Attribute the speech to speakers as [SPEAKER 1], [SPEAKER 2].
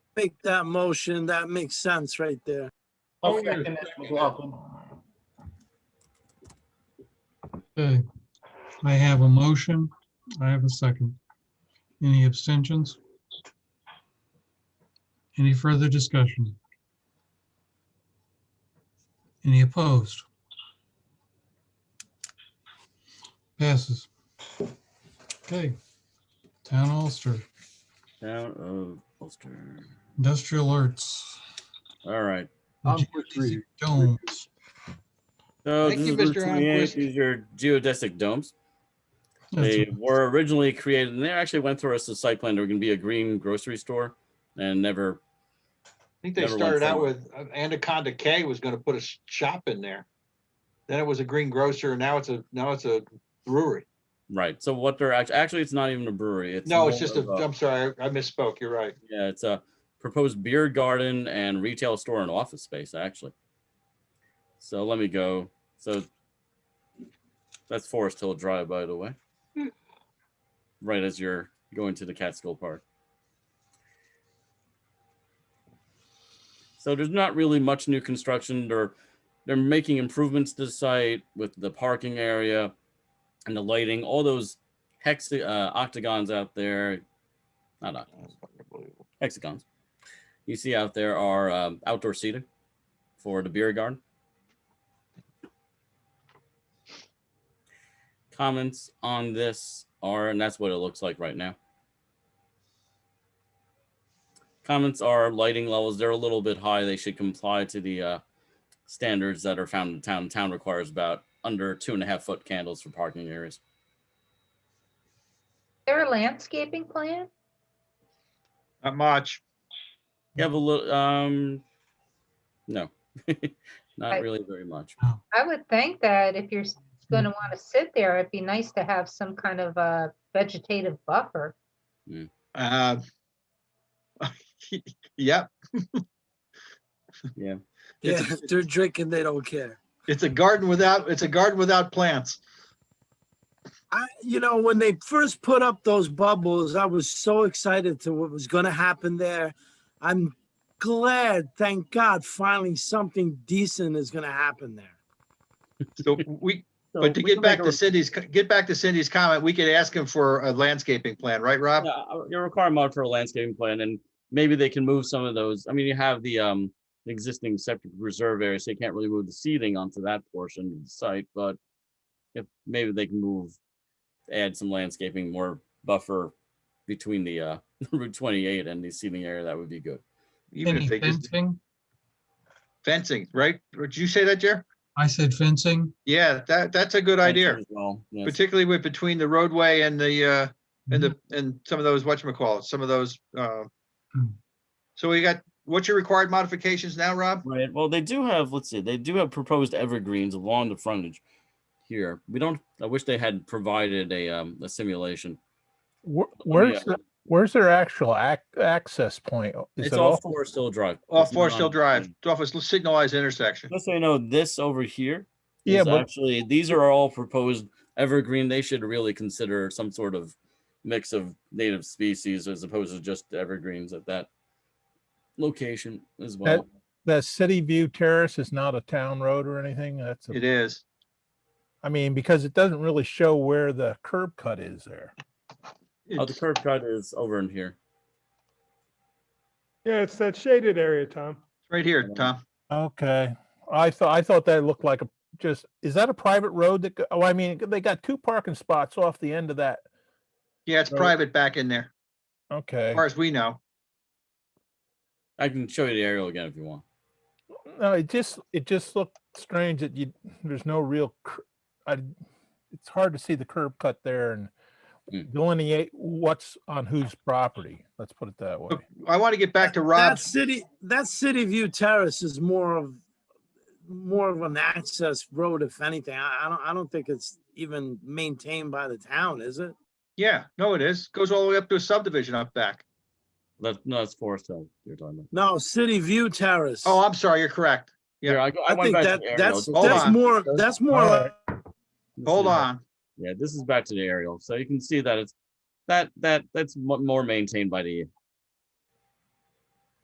[SPEAKER 1] make that motion. That makes sense right there.
[SPEAKER 2] I'll
[SPEAKER 3] Okay.
[SPEAKER 2] second that, McLaughlin.
[SPEAKER 3] Okay, I have a motion. I have a second. Any abstentions? Any further discussion? Any opposed? Passes. Okay. Town Ulster,
[SPEAKER 4] Town of Ulster.
[SPEAKER 3] industrial alerts.
[SPEAKER 4] All right.
[SPEAKER 5] I'm
[SPEAKER 6] Um,
[SPEAKER 5] for three.
[SPEAKER 3] Domes.
[SPEAKER 4] So
[SPEAKER 5] Thank
[SPEAKER 4] this
[SPEAKER 5] you,
[SPEAKER 4] is Route
[SPEAKER 5] Mr.
[SPEAKER 4] 28.
[SPEAKER 5] Almquist.
[SPEAKER 4] These are geodesic domes.
[SPEAKER 3] That's
[SPEAKER 4] They
[SPEAKER 3] it.
[SPEAKER 4] were originally created, and they actually went through us the site plan. They were going to be a green grocery store, and never.
[SPEAKER 5] I think they
[SPEAKER 4] Never went
[SPEAKER 5] started out
[SPEAKER 4] forward.
[SPEAKER 5] with uh, Anaconda K was gonna put a sh- shop in there. Then it was a green grocer and now it's a, now it's a brewery.
[SPEAKER 4] Right. So what they're actually actually it's not even a brewery. It's
[SPEAKER 5] No,
[SPEAKER 4] more
[SPEAKER 5] it's just a,
[SPEAKER 4] of
[SPEAKER 5] I'm sorry, I I misspoke. You're right.
[SPEAKER 4] Yeah, it's a proposed beer garden and retail store and office space, actually. So let me go. So that's Forest Hill Drive, by the way.
[SPEAKER 5] Hmm.
[SPEAKER 4] Right as you're going to the Catskill Park. So there's not really much new construction. They're they're making improvements to the site with the parking area and the lighting, all those hex uh, octagons out there. Not octagons
[SPEAKER 5] Unbelievable.
[SPEAKER 4] hexagons you see out there are um, outdoor seating for the beer garden. Comments on this are, and that's what it looks like right now. Comments are lighting levels. They're a little bit high. They should comply to the uh, standards that are found in town. Town requires about under two and a half foot candles for parking areas.
[SPEAKER 7] There a landscaping plan?
[SPEAKER 5] Not much.
[SPEAKER 4] You have a little, um, no, not
[SPEAKER 7] Right.
[SPEAKER 4] really very much.
[SPEAKER 7] I would think that if you're going to want to sit there, it'd be nice to have some kind of a vegetative buffer.
[SPEAKER 5] Uh, Yep,
[SPEAKER 1] Yeah,
[SPEAKER 5] It's-
[SPEAKER 1] if they're drinking, they don't care.
[SPEAKER 5] it's a garden without, it's a garden without plants.
[SPEAKER 1] I, you know, when they first put up those bubbles, I was so excited to what was going to happen there. I'm glad, thank God, finally something decent is going to happen there.
[SPEAKER 5] So we, but to get back to Cindy's, co- get back to Cindy's comment, we could ask him for a landscaping plan, right, Rob?
[SPEAKER 4] Yeah, you require mod for a landscaping plan and maybe they can move some of those. I mean, you have the, um, existing septic reserve area, so you can't really move the seating onto that portion of the site, but if, maybe they can move, add some landscaping, more buffer between the, uh, Route twenty-eight and the seating area, that would be good.
[SPEAKER 5] Even
[SPEAKER 3] Any
[SPEAKER 5] if they just
[SPEAKER 3] fencing?
[SPEAKER 5] fencing, right? Did you say that, Jer?
[SPEAKER 3] I said fencing.
[SPEAKER 5] Yeah, that, that's a good idea,
[SPEAKER 4] As Well, yes.
[SPEAKER 5] particularly with between the roadway and the, uh, and the, and some of those, whatchamacallit, some of those, uh.
[SPEAKER 3] Hmm.
[SPEAKER 5] So we got, what's your required modifications now, Rob?
[SPEAKER 4] Right. Well, they do have, let's see, they do have proposed evergreens along the frontage here. We don't, I wish they had provided a, um, a simulation. Let me,
[SPEAKER 6] Where's,
[SPEAKER 4] uh,
[SPEAKER 6] the- where's their actual ac- access point? Is
[SPEAKER 4] It's
[SPEAKER 6] it
[SPEAKER 4] all
[SPEAKER 6] off?
[SPEAKER 4] Forest Hill Drive.
[SPEAKER 5] Off
[SPEAKER 4] It's
[SPEAKER 5] Forest Hill
[SPEAKER 4] not-
[SPEAKER 5] Drive, it's off a signalized intersection.
[SPEAKER 4] Just so you know, this over here
[SPEAKER 6] Yeah,
[SPEAKER 4] is
[SPEAKER 6] but
[SPEAKER 4] actually, these are all proposed evergreen. They should really consider some sort of mix of native species as opposed to just evergreens at that location as well.
[SPEAKER 6] that City View Terrace is not a town road or anything. That's, a-
[SPEAKER 5] It is.
[SPEAKER 6] I mean, because it doesn't really show where the curb cut is there.
[SPEAKER 4] Oh, the curb cut is over in here.
[SPEAKER 8] Yeah, it's that shaded area, Tom.
[SPEAKER 5] Right here, Tom.
[SPEAKER 6] Okay, I thought, I thought that looked like a, just, is that a private road that, go- oh, I mean, they got two parking spots off the end of that.
[SPEAKER 5] Yeah, it's
[SPEAKER 6] Right.
[SPEAKER 5] private back in there, as
[SPEAKER 6] Okay,
[SPEAKER 5] far as we know.
[SPEAKER 4] I can show you the aerial again if you want.
[SPEAKER 6] no, it just, it just looked strange that you, there's no real, cur- I, it's hard to see the curb cut there and
[SPEAKER 4] Mm.
[SPEAKER 6] delineate what's on whose property, let's put it that way.
[SPEAKER 5] Look, I want to get back to
[SPEAKER 1] That
[SPEAKER 5] Rob's,
[SPEAKER 1] city, that City View Terrace is more of, more of an access road, if anything. I, I don't, I don't think it's even maintained by the town, is it?
[SPEAKER 5] yeah, no, it is, goes all the way up to a subdivision up back.
[SPEAKER 4] That, no, that's Forest Hill you're talking about.
[SPEAKER 1] No, City View Terrace.
[SPEAKER 5] Oh, I'm sorry, you're correct. Yeah.
[SPEAKER 4] Yeah, I, go-
[SPEAKER 1] I
[SPEAKER 4] I went
[SPEAKER 1] think
[SPEAKER 4] back to
[SPEAKER 1] that,
[SPEAKER 4] the aerial.
[SPEAKER 1] that's,
[SPEAKER 4] Just
[SPEAKER 5] Hold
[SPEAKER 1] that's
[SPEAKER 5] on.
[SPEAKER 1] more, that's more like
[SPEAKER 6] Alright,
[SPEAKER 4] this
[SPEAKER 5] Hold
[SPEAKER 4] is-
[SPEAKER 5] on.
[SPEAKER 4] Yeah, this is back to the aerial, so you can see that it's that that that's mo- more maintained by the